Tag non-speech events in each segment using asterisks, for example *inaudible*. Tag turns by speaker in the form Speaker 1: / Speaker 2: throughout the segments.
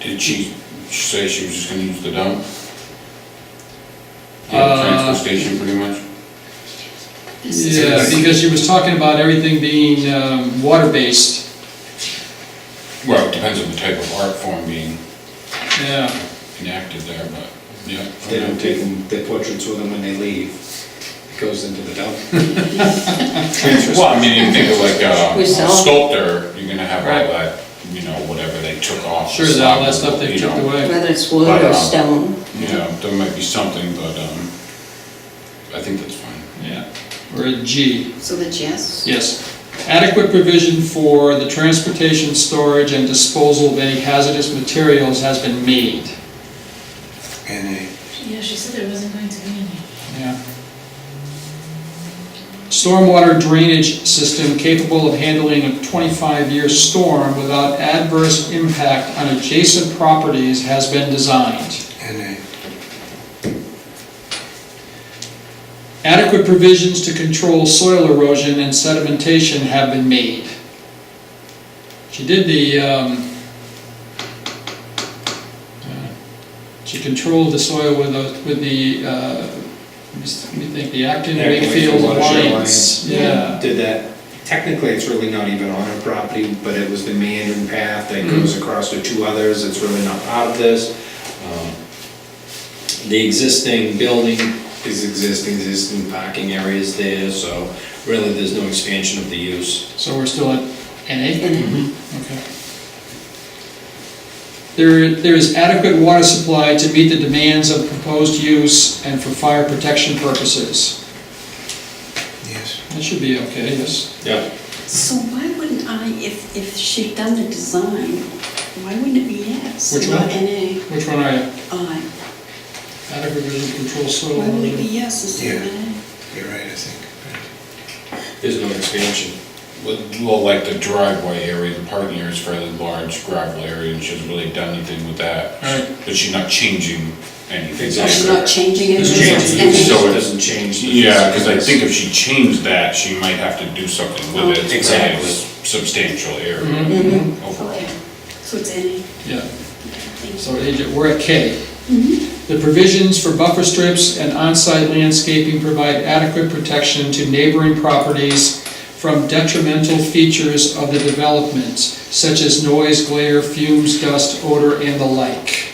Speaker 1: Did she, she say she was just gonna use the dump? Yeah, the
Speaker 2: Uh,
Speaker 1: transfer station pretty much?
Speaker 2: Yeah, because she was talking about everything being um, water-based,
Speaker 1: Well, it depends on the type of art form being
Speaker 2: yeah.
Speaker 1: enacted there, but, yeah.
Speaker 3: They don't take them, their portraits with them when they leave. It goes into the dump. Transfer
Speaker 1: Well, I mean, you think of like uh,
Speaker 4: *laughs* We
Speaker 1: a
Speaker 4: sell.
Speaker 1: sculptor, you're gonna have
Speaker 2: Right.
Speaker 1: all that, you know, whatever they took off.
Speaker 2: Sure, that all that stuff they took away.
Speaker 4: Whether it's wood
Speaker 1: But,
Speaker 4: or
Speaker 1: um,
Speaker 4: stone,
Speaker 1: Yeah, there might be something, but, um, I think that's fine.
Speaker 2: Yeah, we're at G,
Speaker 5: So the yes?
Speaker 2: yes. Adequate provision for the transportation, storage, and disposal of any hazardous materials has been made.
Speaker 6: Yeah, she said there wasn't going to be any.
Speaker 2: Yeah. Stormwater drainage system capable of handling a 25-year storm without adverse impact on adjacent properties has been designed. Adequate provisions to control soil erosion and sedimentation have been made. She did the, um, uh, she controlled the soil with the, with the, uh, let me s- let me think, the Acton
Speaker 3: Acton
Speaker 2: Wakefield
Speaker 3: Wakefield Watershed
Speaker 2: Alliance.
Speaker 3: Alliance.
Speaker 2: Yeah,
Speaker 3: Uh, Did that, technically, it's really not even on her property, but it was the meandering path that goes across to two others, it's really not part of this. Um, The existing building is existing, existing parking areas there, so really, there's no expansion of the use.
Speaker 2: so we're still at NA?
Speaker 4: and it-
Speaker 2: Okay. There, there is adequate water supply to meet the demands of proposed use and for fire protection purposes.
Speaker 7: Yes.
Speaker 2: That should be okay, yes.
Speaker 3: Yeah.
Speaker 5: So why wouldn't I, if, if she'd done the design, why wouldn't it be yes?
Speaker 2: Which
Speaker 5: Not
Speaker 2: one?
Speaker 5: NA,
Speaker 2: Which one are you?
Speaker 5: I.
Speaker 2: Adequate vision control soil.
Speaker 5: Why would it be yes instead of
Speaker 7: Yeah.
Speaker 5: NA?
Speaker 7: You're right, I think.
Speaker 3: There's no expansion.
Speaker 1: With- Well, like the driveway area, the parking area is fairly large gravel area, and she hasn't really done anything with that.
Speaker 2: Right.
Speaker 1: But she's not changing anything.
Speaker 3: Exactly.
Speaker 5: She's not changing it,
Speaker 3: There's
Speaker 5: it's
Speaker 3: change
Speaker 1: changing.
Speaker 3: of use,
Speaker 5: NA.
Speaker 3: so it doesn't change. the-
Speaker 1: Yeah, because I think if she changed that, she might have to do something with it.
Speaker 3: Oh, Exactly. Mm-hmm.
Speaker 1: Substantial area
Speaker 2: Mhm.
Speaker 1: overall.
Speaker 5: Okay, so it's NA,
Speaker 2: Yeah,
Speaker 5: thank
Speaker 2: so agent, we're at K. The provisions for buffer strips and on-site landscaping provide adequate protection to neighboring properties from detrimental features of the development, such as noise, glare, fumes, dust, odor, and the like.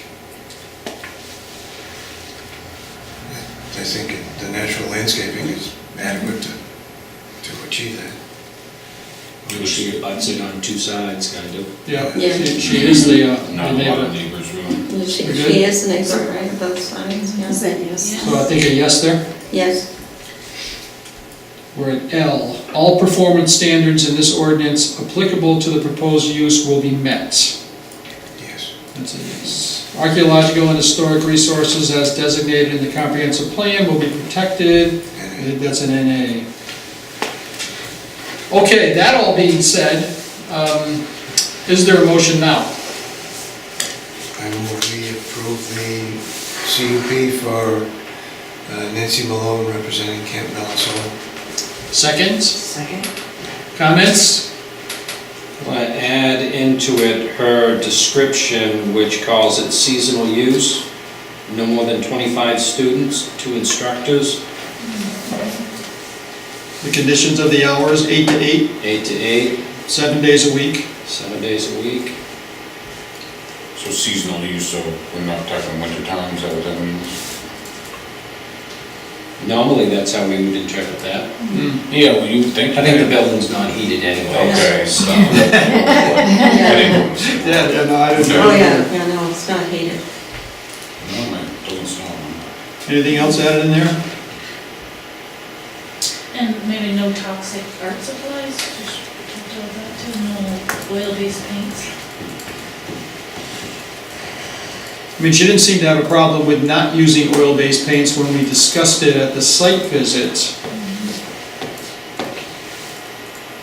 Speaker 7: I think it- the natural landscaping is adequate to, to achieve that.
Speaker 3: She abuts it on two sides, kind of.
Speaker 2: Yeah,
Speaker 4: Yeah.
Speaker 2: she she is the uh, the
Speaker 1: Not a lot of
Speaker 2: neighbor.
Speaker 1: neighbors really.
Speaker 4: Yeah, She
Speaker 2: We're
Speaker 4: she
Speaker 2: good?
Speaker 4: is an expert, right, at those signs,
Speaker 5: you. Is
Speaker 4: yes.
Speaker 5: that yes?
Speaker 2: So I think a yes there?
Speaker 4: Yes,
Speaker 2: We're at L. All performance standards in this ordinance applicable to the proposed use will be met.
Speaker 7: Yes.
Speaker 2: That's a yes. Archaeological and historic resources as designated in the comprehensive plan will be protected. I
Speaker 7: And
Speaker 2: think that's an NA. Okay, that all being said, um, is there a motion now?
Speaker 7: I move we approve the CUP for uh, Nancy Malone representing Camp Melanson.
Speaker 2: Second,
Speaker 5: Second?
Speaker 2: comments?
Speaker 3: I add into it her description, which calls it seasonal use, no more than 25 students, two instructors,
Speaker 2: The conditions of the hours, eight to eight,
Speaker 3: eight to eight,
Speaker 2: seven days a week.
Speaker 3: seven days a week.
Speaker 1: So seasonal use, so we're not talking winter times, that what that means?
Speaker 3: Normally, that's how we would interpret that.
Speaker 1: Yeah, well, you would think.
Speaker 3: I think the building's not heated anyway.
Speaker 1: Okay, so. *laughs* Anyways.
Speaker 2: Yeah, yeah, no, I don't
Speaker 1: know.
Speaker 4: oh yeah, yeah, no, it's not hated.
Speaker 1: No, my building's not.
Speaker 2: Anything else added in there?
Speaker 6: And maybe no toxic art supplies, just protect all that too, no oil-based paints.
Speaker 2: I mean, she didn't seem to have a problem with not using oil-based paints when we discussed it at the site visit.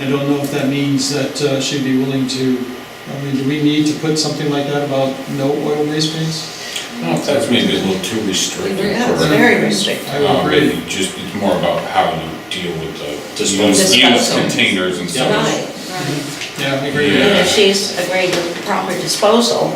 Speaker 2: I don't know if that means that uh, she'd be willing to, I mean, do we need to put something like that about no oil-based paints?
Speaker 3: Oh,
Speaker 1: No, if that's maybe a little too restrictive.
Speaker 4: Yeah, it's
Speaker 1: for-
Speaker 4: very restrictive.
Speaker 2: I would
Speaker 1: Um,
Speaker 2: agree.
Speaker 1: it Just, it's more about how you deal with the.
Speaker 3: Disposal.
Speaker 1: Use
Speaker 4: Disposal.
Speaker 1: containers and
Speaker 3: Yeah.
Speaker 1: stuff.
Speaker 4: Right, right.
Speaker 2: Yeah, I agree with that.
Speaker 4: And if she's agreed with proper disposal,